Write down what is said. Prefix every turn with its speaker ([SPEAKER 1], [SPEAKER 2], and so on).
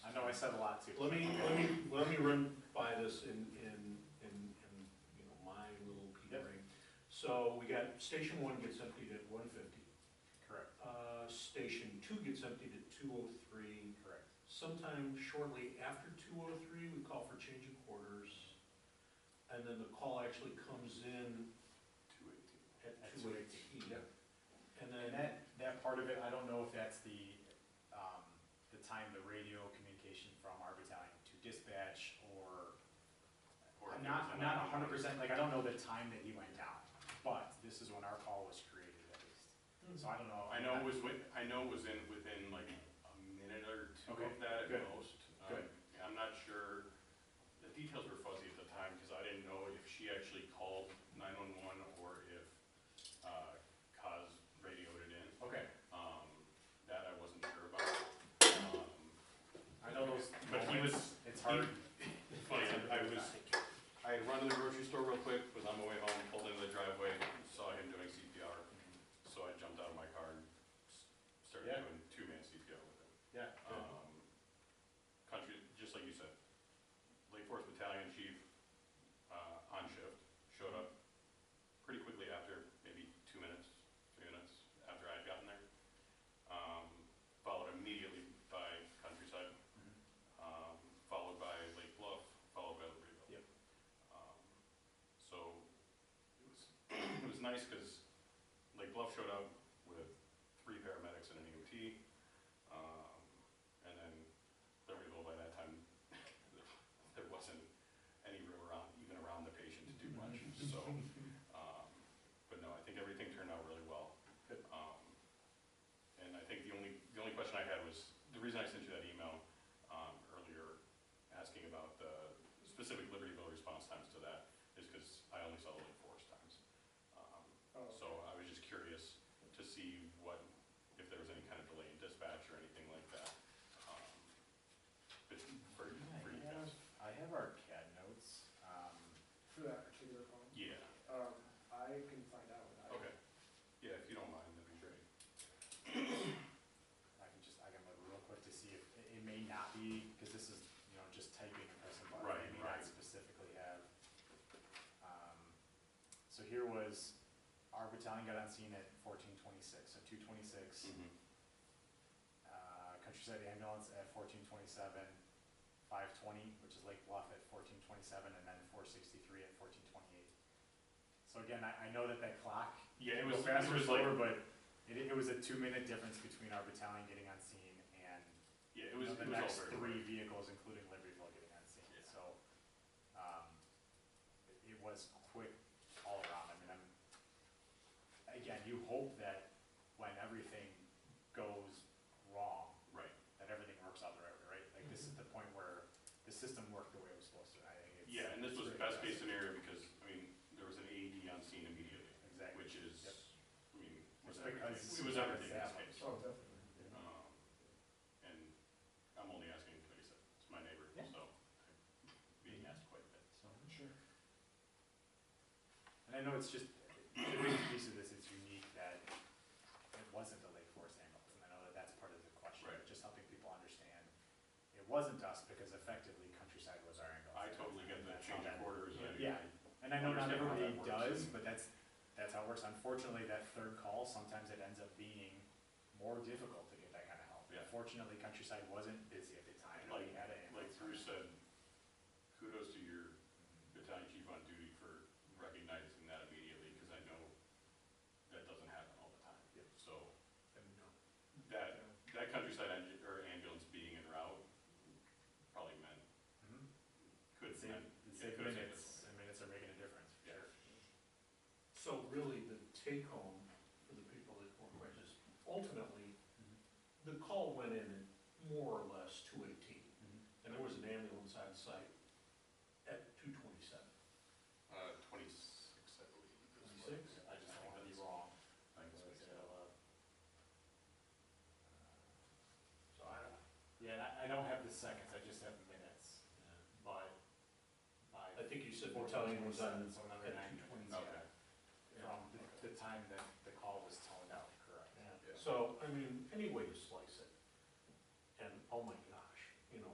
[SPEAKER 1] I said a lot too.
[SPEAKER 2] Let me, let me, let me run by this in, in, in, in, you know, my little pea
[SPEAKER 1] Yep.
[SPEAKER 2] brain. So we got, station one gets emptied at one fifty,
[SPEAKER 1] Correct,
[SPEAKER 2] uh, station two gets emptied at two oh three.
[SPEAKER 1] correct.
[SPEAKER 2] Sometime shortly after two oh three, we call for change of quarters. And then the call actually comes in
[SPEAKER 3] Two eighteen.
[SPEAKER 2] at
[SPEAKER 1] At
[SPEAKER 2] two
[SPEAKER 1] 2:18,
[SPEAKER 2] eighteen.
[SPEAKER 1] yep. And
[SPEAKER 2] And then,
[SPEAKER 1] that, that part of it, I don't know if that's the, um, the time the radio communication from our battalion to dispatch or,
[SPEAKER 3] Or
[SPEAKER 1] I'm
[SPEAKER 3] if
[SPEAKER 1] not, I'm
[SPEAKER 3] it was
[SPEAKER 1] not
[SPEAKER 3] another
[SPEAKER 1] hundred
[SPEAKER 3] one.
[SPEAKER 1] percent, like, I don't know the time that he went down, but this is when our call was created at least. So I don't know.
[SPEAKER 3] I know it was, wi- I know it was in, within like a minute or two
[SPEAKER 1] Okay,
[SPEAKER 3] of that
[SPEAKER 1] good,
[SPEAKER 3] at most. Um,
[SPEAKER 1] good.
[SPEAKER 3] I'm not sure, the details were fuzzy at the time, because I didn't know if she actually called nine-one-one or if, uh, Cos radioed it in.
[SPEAKER 1] Okay,
[SPEAKER 3] Um, that I wasn't sure about. Um,
[SPEAKER 1] I know those
[SPEAKER 3] But he was-
[SPEAKER 1] moments, it's hard.
[SPEAKER 3] It's funny, I I was, I had run to the grocery store real quick, was on my way home, pulled into the driveway, saw him doing CPR, so I jumped out of my car and s- started
[SPEAKER 1] Yeah.
[SPEAKER 3] doing two-man CPR with him.
[SPEAKER 1] Yeah, good.
[SPEAKER 3] Um, country, just like you said, Lake Forest Battalion Chief, uh, on shift, showed up pretty quickly after, maybe two minutes, three minutes after I had gotten there. Um, followed immediately by Countryside,
[SPEAKER 1] Mhm.
[SPEAKER 3] um, followed by Lake Bluff, followed by Libertyville.
[SPEAKER 1] Yep.
[SPEAKER 3] Um, So it was, it was nice because Lake Bluff showed up with three paramedics and an EMT. um, And then Libertyville, by that time, there wasn't any room around, even around the patient to do much,
[SPEAKER 1] Mm-hmm.
[SPEAKER 3] so. um, But no, I think everything turned out really well.
[SPEAKER 1] Good.
[SPEAKER 3] Um, And I think the only, the only question I had was, the reason I sent you that email um, earlier asking about the specific Libertyville response times to that is because I only saw the Lake Forest times. Um,
[SPEAKER 1] Oh,
[SPEAKER 3] So I was just curious to see what, if there was any kind of delay in dispatch or anything like that. um, but For, for you guys.
[SPEAKER 1] I have our CAD notes, um,
[SPEAKER 4] For that particular phone,
[SPEAKER 3] Yeah,
[SPEAKER 4] um, I can find out. I-
[SPEAKER 3] okay. Yeah, if you don't mind, that'd be great.
[SPEAKER 1] I can just, I can look real quick to see if, it, it may not be, because this is, you know, just typing and pressing buttons.
[SPEAKER 3] Right,
[SPEAKER 1] It may
[SPEAKER 3] right.
[SPEAKER 1] not specifically have. um, So here was, our battalion got on scene at fourteen twenty-six, so two twenty-six.
[SPEAKER 3] Mm-hmm.
[SPEAKER 1] uh, Countryside Ambulance at fourteen twenty-seven, five twenty, which is Lake Bluff at fourteen twenty-seven, and then four sixty-three at fourteen twenty-eight. So again, I, I know that that clock,
[SPEAKER 3] Yeah,
[SPEAKER 1] it
[SPEAKER 3] it
[SPEAKER 1] was
[SPEAKER 3] was,
[SPEAKER 1] faster or
[SPEAKER 3] it was like,
[SPEAKER 1] slower, but it, it was a two-minute difference between our battalion getting on scene and
[SPEAKER 3] yeah, it
[SPEAKER 1] you
[SPEAKER 3] was,
[SPEAKER 1] know, the
[SPEAKER 3] it was all
[SPEAKER 1] next
[SPEAKER 3] very.
[SPEAKER 1] three vehicles, including Libertyville, getting on scene,
[SPEAKER 3] Yeah.
[SPEAKER 1] so. um, it- It was quick all around, I mean, I'm, again, you hope that when everything goes wrong,
[SPEAKER 3] Right,
[SPEAKER 1] that everything works out the right way, right? Like, this is the point where the system worked the way it was supposed to, I think it's.
[SPEAKER 3] yeah, and this was
[SPEAKER 1] it's really
[SPEAKER 3] best case
[SPEAKER 1] impressive.
[SPEAKER 3] scenario because, I mean, there was an AED on scene immediately.
[SPEAKER 1] Exactly.
[SPEAKER 3] which is,
[SPEAKER 1] Yep.
[SPEAKER 3] I mean, was
[SPEAKER 1] It's
[SPEAKER 3] everything,
[SPEAKER 1] because-
[SPEAKER 3] it was everything in
[SPEAKER 1] Yeah.
[SPEAKER 3] this case.
[SPEAKER 4] Oh, definitely. yeah.
[SPEAKER 3] Um, And I'm only asking, like I said, it's my neighbor,
[SPEAKER 1] Yeah.
[SPEAKER 3] so I'm being asked quite a bit, so.
[SPEAKER 4] Sure.
[SPEAKER 1] And I know it's just, the biggest piece of this is unique that it wasn't the Lake Forest ambulance, and I know that that's part of the question.
[SPEAKER 3] Right.
[SPEAKER 1] Just helping people understand, it wasn't us, because effectively Countryside was our
[SPEAKER 3] I
[SPEAKER 1] ambulance.
[SPEAKER 3] totally get the
[SPEAKER 1] That's how
[SPEAKER 3] change of
[SPEAKER 1] that-
[SPEAKER 3] quarters, I.
[SPEAKER 1] Yeah, and I know not
[SPEAKER 3] understand how
[SPEAKER 1] everybody
[SPEAKER 3] that works.
[SPEAKER 1] does, but that's, that's how it works. Unfortunately, that third call, sometimes it ends up being more difficult to get that kind of help.
[SPEAKER 3] Yeah.
[SPEAKER 1] Fortunately, Countryside wasn't busy at the time, and we
[SPEAKER 3] Like-
[SPEAKER 1] had an
[SPEAKER 3] Like
[SPEAKER 1] ambulance.
[SPEAKER 3] Bruce said, kudos to your battalion chief on duty for recognizing that immediately, because I know that doesn't happen all the time.
[SPEAKER 1] Yep.
[SPEAKER 3] So that, that countryside ambu- or ambulance being en route probably meant,
[SPEAKER 1] Mhm.
[SPEAKER 3] could
[SPEAKER 1] It
[SPEAKER 3] have
[SPEAKER 1] saved,
[SPEAKER 3] meant.
[SPEAKER 1] it
[SPEAKER 3] yeah,
[SPEAKER 1] saved
[SPEAKER 3] could have saved
[SPEAKER 1] minutes, and minutes are making a difference, for
[SPEAKER 3] Yeah.
[SPEAKER 1] sure.
[SPEAKER 2] so really the take home for the people that were registered, ultimately, the call went in at more or less two eighteen. And there was an ambulance on site at two twenty-seven.
[SPEAKER 3] Uh, twenty-six, I believe. is what-
[SPEAKER 1] I just don't wanna be wrong.
[SPEAKER 3] I think that's what it said.
[SPEAKER 2] So I don't,
[SPEAKER 1] Uh, Yeah, and I, I don't have the seconds, I just have minutes, but by.
[SPEAKER 2] I think you said battalion was on
[SPEAKER 1] So another
[SPEAKER 2] at
[SPEAKER 1] nine
[SPEAKER 2] 2:20.
[SPEAKER 1] minutes,
[SPEAKER 3] Okay.
[SPEAKER 1] yeah, From the, the time that the call was toned out, correct?
[SPEAKER 2] Yeah. So, I mean, anyways, oh